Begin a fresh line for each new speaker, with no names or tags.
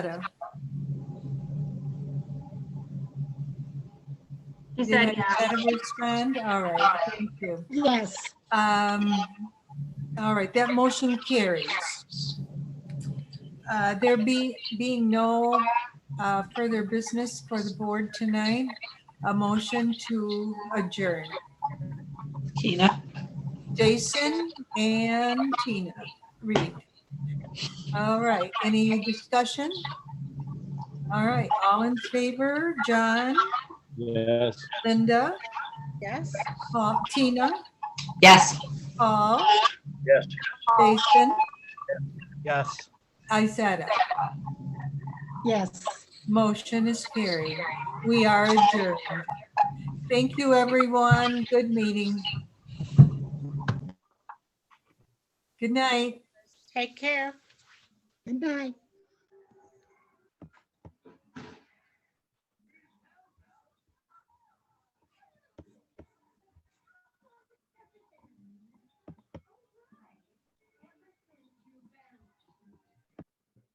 She
You
said
had
yes.
that a friend? All right, thank you.
Yes.
Um, All right, that motion carries. Uh, There be, being no uh, further business for the board tonight, a motion to adjourn.
Tina?
Jason and Tina Reed. All right, any discussion? All right, all in favor, John,
Yes.
Linda,
Yes.
Paul- Tina,
Yes.
Paul,
Yes.
Jason,
Yes.
Isetta.
Yes.
Motion is carried. We are adjourned. Thank you, everyone. Good meeting. Good night.
Take care.
Good night.